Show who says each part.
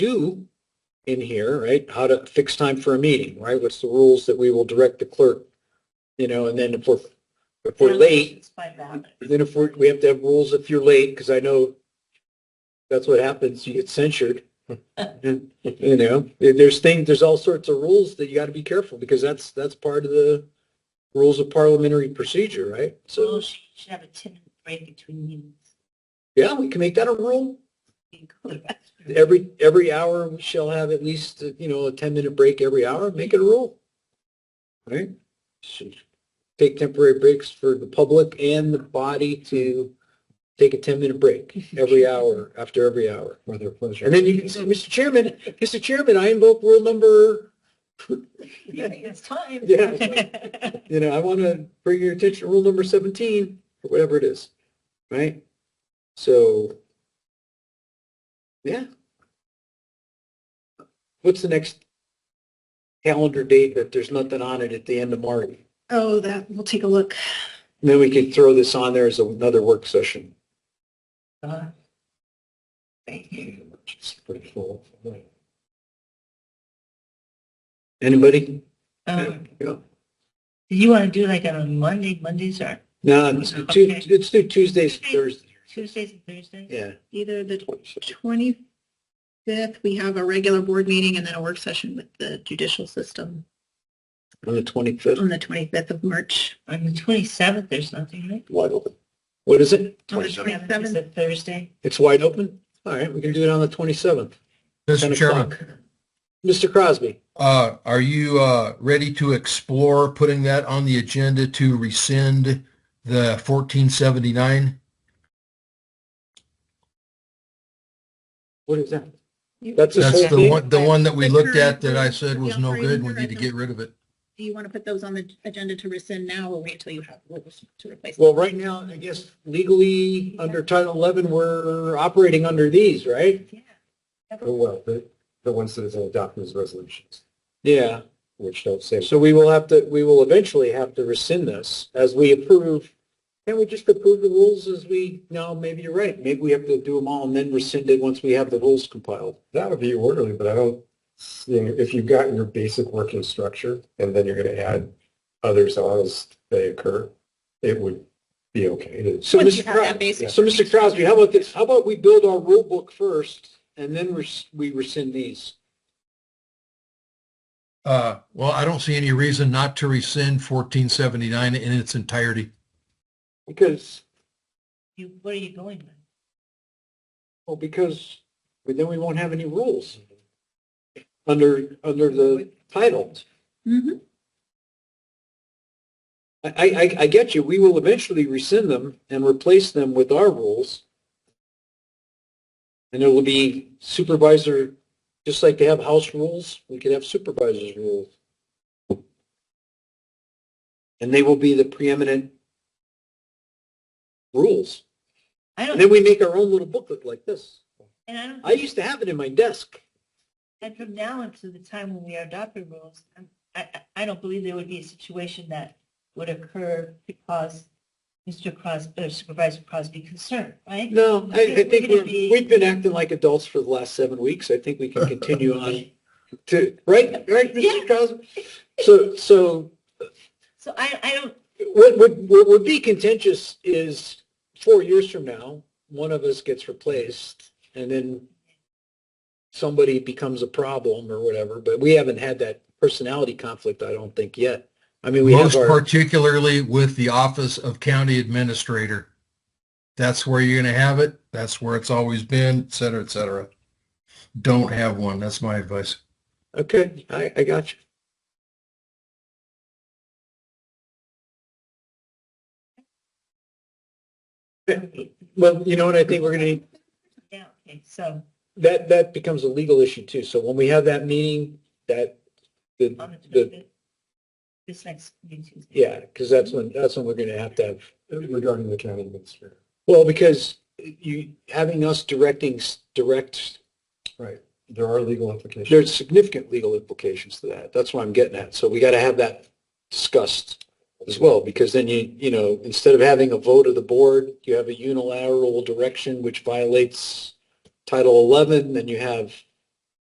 Speaker 1: do in here, right? How to fix time for a meeting, right? What's the rules that we will direct the clerk? You know, and then if we're, if we're late,
Speaker 2: By that.
Speaker 1: then if we're, we have to have rules if you're late, because I know that's what happens, you get censured. You know, there- there's things, there's all sorts of rules that you got to be careful because that's, that's part of the rules of parliamentary procedure, right?
Speaker 2: So
Speaker 1: So,
Speaker 2: she should have a ten minute break between meetings.
Speaker 1: yeah, we can make that a rule.
Speaker 2: You go to the restroom.
Speaker 1: Every, every hour, we shall have at least, you know, a 10-minute break every hour, make it a rule. Right? Should Take temporary breaks for the public and the body to take a 10-minute break every hour, after every hour.
Speaker 3: For their pleasure.
Speaker 1: And then you can say, Mr. Chairman, Mr. Chairman, I invoke rule number,
Speaker 2: You think It's time.
Speaker 1: Yeah. you know, I want to bring your attention to rule number 17, or whatever it is, right? So, yeah. What's the next calendar date that there's nothing on it at the end of March?
Speaker 2: Oh, that, we'll take a look.
Speaker 1: And Then we could throw this on there as another work session. It's pretty full. Anybody?
Speaker 2: Um,
Speaker 1: Yeah.
Speaker 2: do you want to do like on Monday, Mondays or
Speaker 1: No, let's do Tu-
Speaker 2: Okay.
Speaker 1: let's do Tuesdays, Thursdays.
Speaker 2: Tuesdays and Thursdays?
Speaker 1: Yeah.
Speaker 4: either the twenty-fifth, we have a regular board meeting and then a work session with the judicial system
Speaker 1: On the 25th,
Speaker 4: on the twenty-fifth of March.
Speaker 2: On the twenty-seventh, there's nothing, right?
Speaker 1: wide open. What is it?
Speaker 4: On the
Speaker 2: 27th Is
Speaker 4: 27th.
Speaker 2: a Thursday?
Speaker 1: It's wide open? All right, we can do it on the 27th. 10
Speaker 3: Mr. Chairman,
Speaker 1: o'clock. Mr. Crosby,
Speaker 3: uh, are you, uh, ready to explore putting that on the agenda to rescind the fourteen seventy-nine?
Speaker 1: what is that?
Speaker 4: You-
Speaker 1: That's a-
Speaker 3: That's the
Speaker 1: Fourteen?
Speaker 3: one, the one that we looked at that I said was no good. We need to get rid of it.
Speaker 4: Do you want to put those on the agenda to rescind now or wait until you have rules to replace? them?
Speaker 1: Well, right now, I guess legally, under Title 11, we're operating under these, right?
Speaker 2: Yeah.
Speaker 1: well, the, the ones that are adopted as resolutions. Yeah.
Speaker 3: Which don't say.
Speaker 1: So we will have to, we will eventually have to rescind this as we approve. Can we just approve the rules as we, no, maybe you're right. Maybe we have to do them all and then rescind it once we have the rules compiled.
Speaker 5: That would be orderly, but I don't, you know, if you've gotten your basic working structure and then you're going to add others on as they occur, it would be okay to.
Speaker 1: So
Speaker 4: Once you
Speaker 1: Mr.
Speaker 4: have that
Speaker 1: Crosby,
Speaker 4: basic.
Speaker 1: so Mr. Crosby, how about this? How about we build our rule book first and then res- we rescind these?
Speaker 3: Uh, well, I don't see any reason not to rescind fourteen seventy-nine in its entirety.
Speaker 1: Because,
Speaker 2: You, where are you going then?
Speaker 1: well, because then we won't have any rules under, under the title.
Speaker 4: Mhm.
Speaker 1: I, I, I get you. We will eventually rescind them and replace them with our rules. And it will be supervisor, just like they have house rules, we could have supervisor's rules. And they will be the preeminent rules.
Speaker 2: I
Speaker 1: And then
Speaker 2: don't,
Speaker 1: we make our own little booklet like this.
Speaker 2: and I don't,
Speaker 1: I used to have it in my desk.
Speaker 2: and from now until the time when we adopt the rules, I'm- I, I, I don't believe there would be a situation that would occur because Mr. Crosby, or Supervisor Crosby concerned, right?
Speaker 1: No, I, I think
Speaker 2: We're gonna
Speaker 1: we're,
Speaker 2: be-
Speaker 1: we've been acting like adults for the last seven weeks. I think we can continue on to, right, right, Mr. Crosby? So, so
Speaker 2: So I, I don't,
Speaker 1: what would, what would be contentious is four years from now, one of us gets replaced and then somebody becomes a problem or whatever, but we haven't had that personality conflict, I don't think yet. I mean, we have
Speaker 3: Most
Speaker 1: our,
Speaker 3: particularly with the office of county administrator. That's where you're going to have it. That's where it's always been, et cetera, et cetera. Don't have one. That's my advice.
Speaker 1: okay, I, I got you. Well, you know what, I think we're gonna need,
Speaker 2: yeah, okay, so
Speaker 1: that, that becomes a legal issue too. So when we have that meeting, that, the,
Speaker 2: on the
Speaker 1: the
Speaker 2: 25th, this next meeting.
Speaker 1: Yeah, because that's when, that's when we're going to have to have,
Speaker 5: Regarding the county administrator.
Speaker 1: well, because you, having us directing, s- direct,
Speaker 5: There are legal implications.
Speaker 1: there's significant legal implications to that. That's what I'm getting at. So we got to have that discussed as well, because then you, you know, instead of having a vote of the board, you have a unilateral direction which violates Title 11, then you have